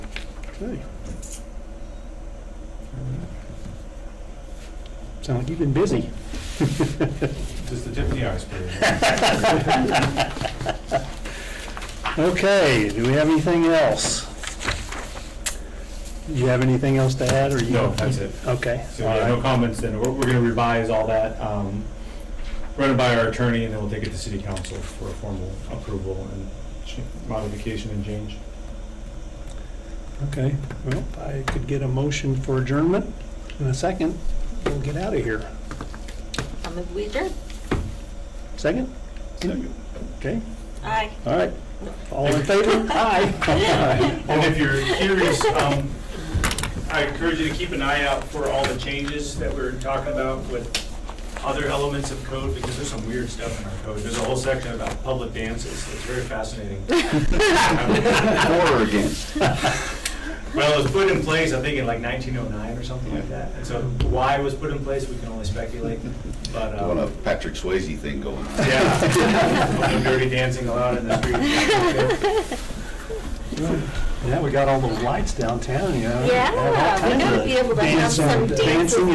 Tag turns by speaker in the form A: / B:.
A: Okay. Sound like you've been busy.
B: Just the tip of the iceberg.
A: Okay, do we have anything else? Do you have anything else to add, or you?
B: No, that's it.
A: Okay,
B: So
A: all
B: yeah, no
A: right,
B: comments then. We're, we're gonna revise all that, um, run it by our attorney and then we'll take it to city council for a formal approval and ch- modification and change.
A: okay. Well, if I could get a motion for adjournment in a second, we'll get out of here.
C: I'm a wizard.
A: Second?
B: Second.
A: Okay,
C: Aye.
A: all right. All in favor? Aye.
B: And if you're curious, um, I encourage you to keep an eye out for all the changes that we're talking about with other elements of code, because there's some weird stuff in our code. There's a whole section about public dances, it's very fascinating.
D: For or against?
B: Well, it was put in place, I think, in like 1909 or something like that. And so why it was put in place, we can only speculate, but,
D: Doing uh, a
B: um,
D: Patrick Swayze thing going.
B: yeah. Dirty dancing allowed in the street.
A: Now we got all those lights downtown, you know.
C: Yeah,
A: Have all
C: we're
A: kinds
C: gonna
A: of
C: be able to have
A: dancing-
C: some dances
A: dancing